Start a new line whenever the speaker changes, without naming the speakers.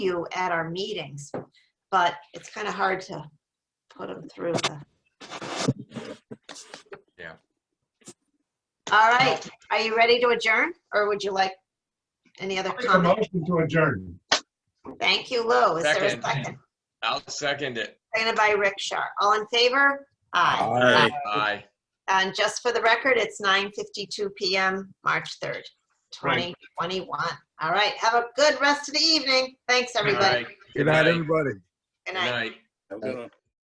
you at our meetings, but it's kind of hard to put them through the.
Yeah.
All right, are you ready to adjourn, or would you like any other
Make a
comment?
motion to adjourn.
Thank you, Lou. Is there a
Second.
second?
I'll second it.
Seconded by Rick Shar. All in favor? Aye.
Aye.
And just for the record, it's 9:52 PM, March 3rd,
Right.
2021. All right, have a good rest of the evening. Thanks,
All
everybody.
right.
Good night,
Aye.
everybody.
Good
Good
night.
night.
I'm gonna-